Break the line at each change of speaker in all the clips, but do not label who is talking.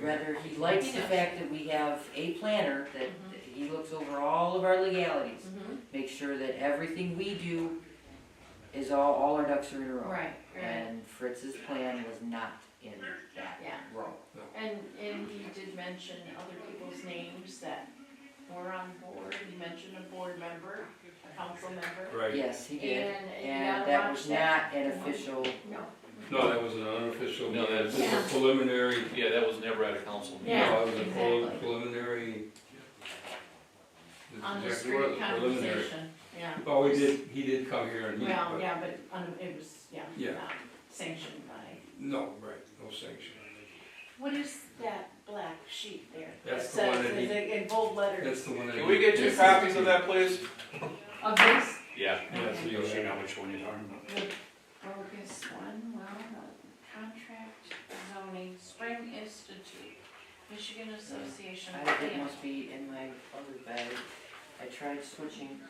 rather, he likes the
He knows.
fact that we have a planner, that
Mhm.
he looks over all of our legalities,
Mhm.
make sure that everything we do is all, all our ducks are in a row.
Right, right,
And Fritz's plan was not in that
yeah.
row.
And, and he did mention other people's names that were on board, he mentioned a board member, a council member.
Right,
Yes, he did,
you
and
gotta
that
watch
was not an official,
No,
no, that was an unofficial,
No,
meeting.
that's-
this was a preliminary,
Yeah, that was never at a council meeting.
Yeah,
no, it was a prel-
exactly.
preliminary. This is
on
exactly what
the
it
street
was, preliminary.
conversation, yeah.
Oh, he did, he did come here and meet,
Well,
but,
yeah, but um, it was, yeah,
Yeah.
not sanctioned by.
no, right, no sanction.
What is that black sheet there?
That's the one
says-
that he-
is it In bold letters.
That's the one that.
Can we get two copies of that, please?
Of this,
Yeah.
Yeah, so you'll see now
which one you're talking about.
the bogus one, well, the contract zoning, Spring Institute, Michigan Association. of
I think it
Planners.
must be in my other bag. I tried switching.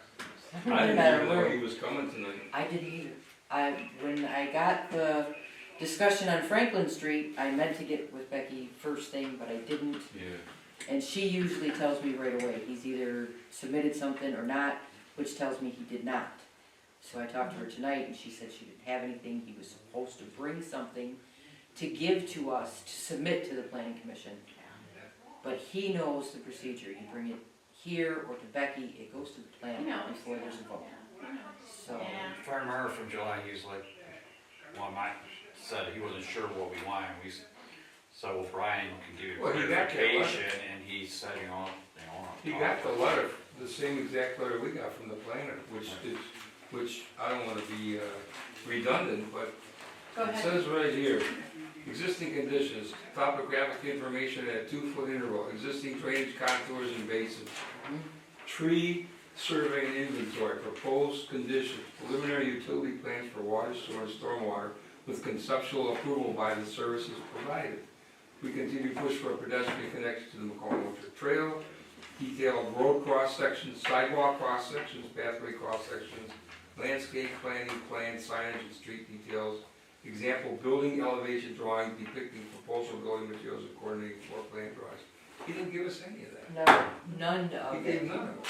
I
No
didn't
matter
even know
where.
he was coming tonight.
I didn't either. I, when I got the discussion on Franklin Street, I meant to get with Becky first thing, but I didn't.
Yeah.
And she usually tells me right away, he's either submitted something or not, which tells me he did not. So I talked to her tonight and she said she didn't have anything, he was supposed to bring something to give to us, to submit to the planning commission. But he knows the procedure, you bring it here or to Becky, it goes to the
Who
plan
knows?
before there's a vote,
Yeah, who knows?
so.
Yeah.
If I remember from July, he was like, well, Mike said he wasn't sure what we wanted, we, s- so well, Brian can give you
Well, he got that letter.
clarification, and he said, you know, they want.
He got the letter, the same exact letter we got from the planner, which is, which I don't wanna be uh, redundant, but
Go
It
ahead.
says right here, existing conditions, topographic information at two-foot interval, existing drainage contours and basins,
Mhm.
tree survey and inventory, proposed conditions, preliminary utility plans for water, sewer, and stormwater with conceptual approval by the services provided. We continue to push for a pedestrian connection to the McCall Orchard Trail, detailed road cross-sections, sidewalk cross-sections, pathway cross-sections, landscape planning, plan signage and street details, Example, building elevation drawing depicting proposal building materials and coordinating floor plan drawings. He didn't give us any of that.
No, none
He
of
gave
it,
none of it.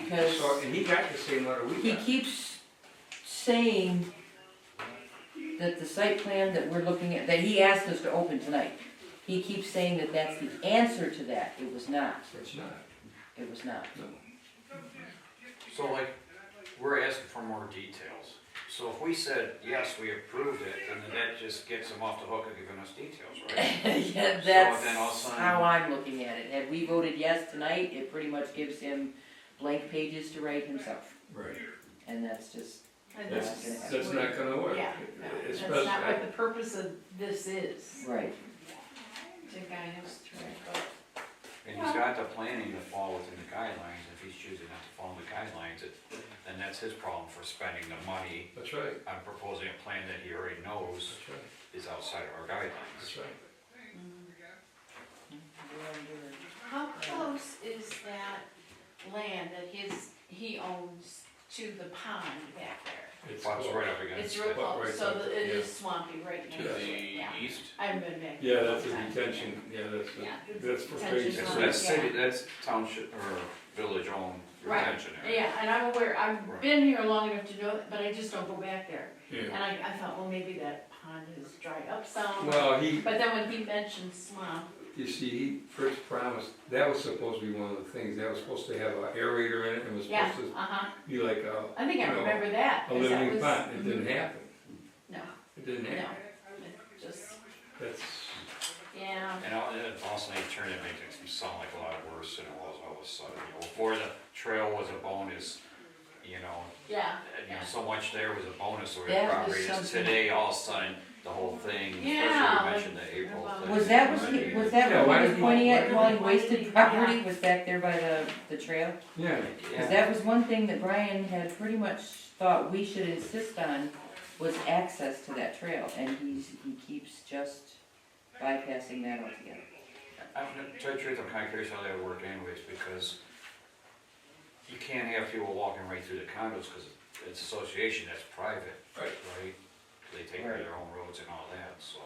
because
So, and he got the same letter we
he
got.
keeps saying that the site plan that we're looking at, that he asked us to open tonight, he keeps saying that that's the answer to that, it was not,
It's not,
it was not.
no.
So like, we're asking for more details, so if we said, yes, we approved it, then that just gets them off the hook of giving us details, right?
Yeah,
So then I'll
that's
sign-
how I'm looking at it, had we voted yes tonight, it pretty much gives him blank pages to write himself,
Right.
and that's just,
And
That's,
this is
that's not gonna work.
Yeah, no, that's
Especially-
not what the purpose of this is,
right,
to guide us through it, but
And he's got the planning to fall within the guidelines, if he's choosing not to follow the guidelines, it- then that's his problem for spending the money
That's right,
on proposing a plan that he already knows
that's right,
is outside of our guidelines.
that's right.
how close is that land that his, he owns to the pond back there?
It's
Pops
cool.
right up against
It's
it.
real
Well, right
close, so
up
the-
there,
it
yeah.
is swampy right
To
next to it, yeah.
the east.
I haven't been back.
Yeah,
there
that's a
long time.
detention, yeah, that's,
Yeah.
a- that's for
Detention
phase
Yeah,
pond.
so
three.
that's city, that's township or village owned
Right.
retention area.
Yeah, and I'm aware, I've
Right.
been here long enough to know it, but I just don't go back there.
Yeah.
And I, I thought, well, maybe that pond is dried up some,
Well, he,
but then when he mentioned swamp,
You see, he first promised, that was supposed to be one of the things, that was supposed to have an aerator in it, and was
yeah,
supposed to
uh-huh,
be like a,
I think I
No.
remember that.
a
'cause that
living
was- Mhm.
pond, it didn't happen,
No,
it didn't
no,
happen,
it just,
that's,
yeah,
And all- and also they turned it make it sound like a lot worse than it was all of a sudden, you know, before the trail was a bonus, you know,
yeah,
and, you know, so much there was a bonus or the
That was
property is
something-
today, all of a sudden, the whole thing, especially you
Yeah,
mentioned the April
about-
thing.
was that, was he, was that
Yeah, why
what he
did
was
he-
pointing
why
at,
did
calling
he-
wasted property, was back there by the, the trail?
yeah.
Because
Yeah,
that was one thing that Brian had pretty much thought we should insist on, was access to that trail, and he's, he keeps just bypassing that altogether.
I'm, to tell you the truth, I'm kinda curious how that would work anyways, because you can't have people walking right through the condos, cause it's association, that's private,
Right.
right? They take care of their own roads and all that, so.